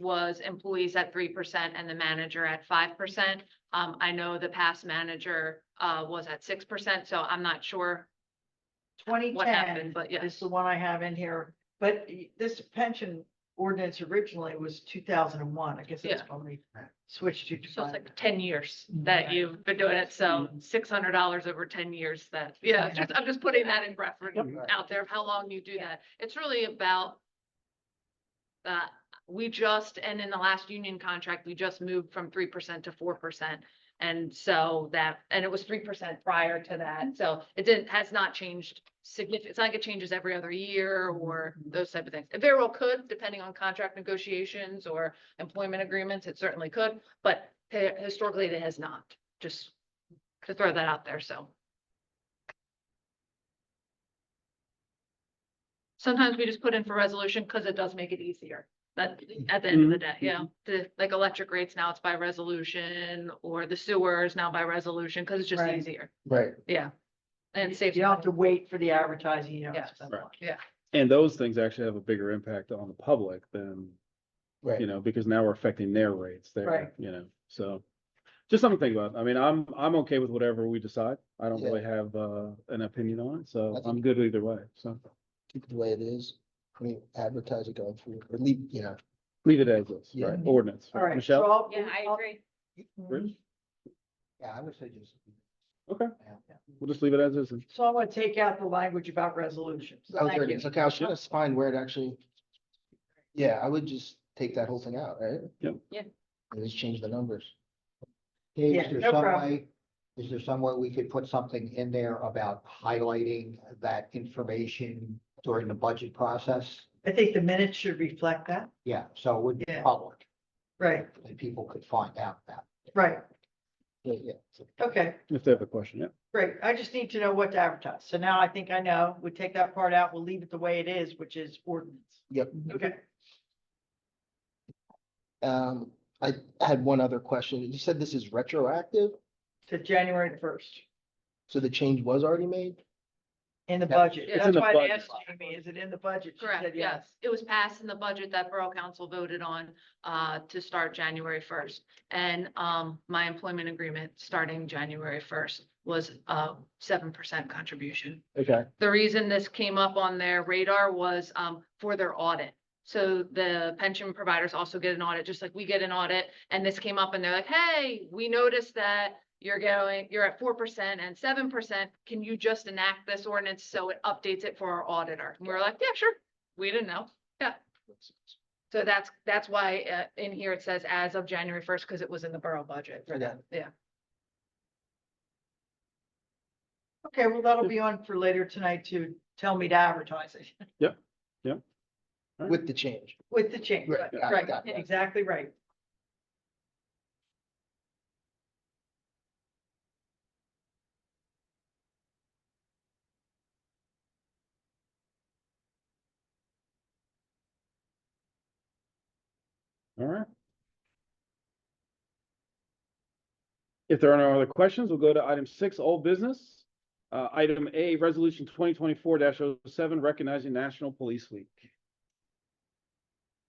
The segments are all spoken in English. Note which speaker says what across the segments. Speaker 1: was employees at three percent and the manager at five percent. Um, I know the past manager, uh, was at six percent, so I'm not sure
Speaker 2: Twenty
Speaker 1: what happened,
Speaker 2: ten
Speaker 1: but
Speaker 2: is
Speaker 1: yes.
Speaker 2: the one I have in here, but y- this pension ordinance originally was two thousand and one. I guess that's when we switched to.
Speaker 1: So it's
Speaker 2: defined.
Speaker 1: like ten years that
Speaker 2: Right.
Speaker 1: you've been doing it, so six hundred dollars over ten years that, yeah, just, I'm just putting that in reference
Speaker 3: Yep.
Speaker 1: out there of how long you do that. It's really about uh, we just, and in the last union contract, we just moved from three percent to four percent. And so that, and it was three percent prior to that, so it didn't, has not changed significant, it's not like it changes every other year or those type of things. It very well could, depending on contract negotiations or employment agreements, it certainly could, but hi- historically it has not, just to throw that out there, so. Sometimes we just put in for resolution because it does make it easier, but at the end of the day,
Speaker 2: Mm-hmm.
Speaker 1: yeah, the, like electric rates now it's by resolution or the sewers now by resolution, because it's just
Speaker 2: Right.
Speaker 1: easier,
Speaker 3: Right.
Speaker 1: yeah. And it
Speaker 2: You
Speaker 1: saves.
Speaker 2: don't have
Speaker 1: money.
Speaker 2: to wait for the advertising, you know.
Speaker 1: Yes.
Speaker 4: And those things actually have a bigger impact on the public than,
Speaker 3: Right.
Speaker 4: you know, because now we're affecting their rates
Speaker 2: Right.
Speaker 4: there, you know, so. Just something to think about. I mean, I'm, I'm okay with whatever we decide. I don't
Speaker 3: Yeah.
Speaker 4: really have, uh, an opinion on it,
Speaker 3: I
Speaker 4: so
Speaker 3: think-
Speaker 4: I'm good either way, so.
Speaker 3: Keep it the way it is. I mean, advertise it going forward, or leave, you know.
Speaker 4: Leave it as is,
Speaker 3: Yeah.
Speaker 4: right? Ordinance.
Speaker 2: All right.
Speaker 4: Michelle?
Speaker 1: agree.
Speaker 2: Mm-hmm.
Speaker 4: Rich?
Speaker 3: Yeah, I would say just.
Speaker 4: Okay,
Speaker 3: Yeah.
Speaker 4: we'll just leave it as is. and-
Speaker 2: So I want to take out the language about resolutions.
Speaker 3: Oh, there
Speaker 2: Thank
Speaker 3: it
Speaker 2: you.
Speaker 3: is. Okay, I was trying to find where it actually. Yeah, I would just take that whole thing out, right?
Speaker 4: Yep.
Speaker 1: Yeah.
Speaker 3: And just change the numbers.
Speaker 5: Hey,
Speaker 2: Yeah,
Speaker 5: is there
Speaker 2: no
Speaker 5: some
Speaker 2: problem.
Speaker 5: way, is there some way we could put something in there about highlighting that information during the budget process?
Speaker 2: I think the minutes should reflect that.
Speaker 5: Yeah, so it would be
Speaker 2: Yeah.
Speaker 5: public
Speaker 2: Right,
Speaker 5: and people could find out that.
Speaker 2: right.
Speaker 3: Yeah, yeah.
Speaker 2: Okay,
Speaker 4: If they have a question, yeah.
Speaker 2: great. I just need to know what to advertise. So now I think I know. We take that part out. We'll leave it the way it is, which is ordinance.
Speaker 3: Yep.
Speaker 2: Okay.
Speaker 3: Um, I had one other question. You said this is retroactive,
Speaker 2: To January first
Speaker 3: so the change was already made?
Speaker 2: in the
Speaker 3: Yeah.
Speaker 2: budget.
Speaker 1: It's
Speaker 4: in
Speaker 2: That's
Speaker 4: the
Speaker 2: why they
Speaker 4: budget.
Speaker 2: asked me, is it in the budget? She said
Speaker 1: Correct, yes. It was passed in the budget that Borough Council voted on uh, to start January first. And um, my employment agreement starting January first was a seven percent contribution.
Speaker 3: Okay.
Speaker 1: The reason this came up on their radar was um, for their audit. So the pension providers also get an audit, just like we get an audit. And this came up and they're like, hey, we noticed that you're going, you're at four percent and seven percent. Can you just enact this ordinance so it updates it for our auditor? And we're like, yeah, sure. We didn't know. So that's, that's why uh, in here it says as of January first, because it was in the borough budget for them. Yeah.
Speaker 2: Okay, well, that'll be on for later tonight to tell me to advertise it
Speaker 3: With the change.
Speaker 2: with the change.
Speaker 3: Right, got it,
Speaker 2: Right,
Speaker 3: got it.
Speaker 2: exactly right.
Speaker 4: All right. If there are no other questions, we'll go to item six, old business. Uh, item A, resolution twenty twenty-four 7 recognizing National Police Week.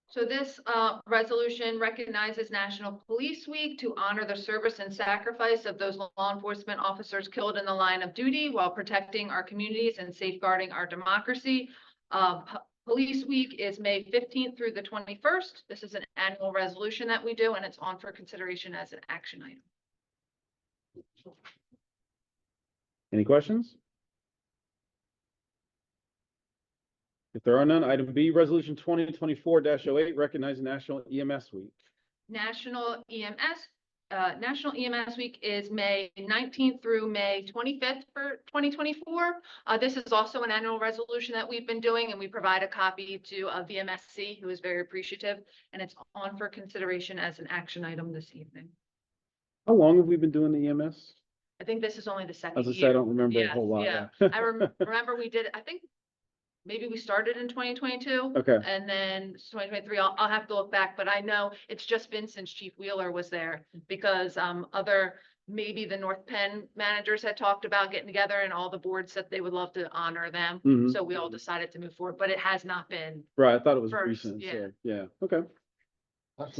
Speaker 1: So this uh, resolution recognizes National Police Week to honor the service and sacrifice of those law enforcement officers killed in the line of duty while protecting our communities and safeguarding our democracy. Uh, P- Police Week is May fifteenth through the twenty-first. This is an annual resolution that we do, and it's on for consideration as an action item.
Speaker 4: Any questions? If there are none, item B, resolution twenty twenty-four 8 recognizing National EMS Week.
Speaker 1: National EMS, uh, National EMS Week is May nineteenth through May twenty-fifth for twenty twenty-four. Uh, this is also an annual resolution that we've been doing and we provide a copy to uh, VMSC, who is very appreciative. And it's on for consideration as an action item this evening.
Speaker 4: How long have we been doing the EMS?
Speaker 1: I think this is only the second
Speaker 4: As I said, I
Speaker 1: year.
Speaker 4: don't remember a whole lot.
Speaker 1: Yes,
Speaker 4: yeah.
Speaker 1: I rem- remember we did, I think, maybe we started in twenty twenty-two.
Speaker 4: Okay,
Speaker 1: And then twenty twenty-three, I'll, I'll have to look back, but I know it's just been since Chief Wheeler was there because, um, other, maybe the North Penn managers had talked about getting together and all the boards said they would love to honor them.
Speaker 4: Mhm.
Speaker 1: So we all decided to move forward, but it has not been,
Speaker 4: right, I thought it was
Speaker 1: First,
Speaker 4: recent,
Speaker 1: yeah.
Speaker 4: so, yeah, okay.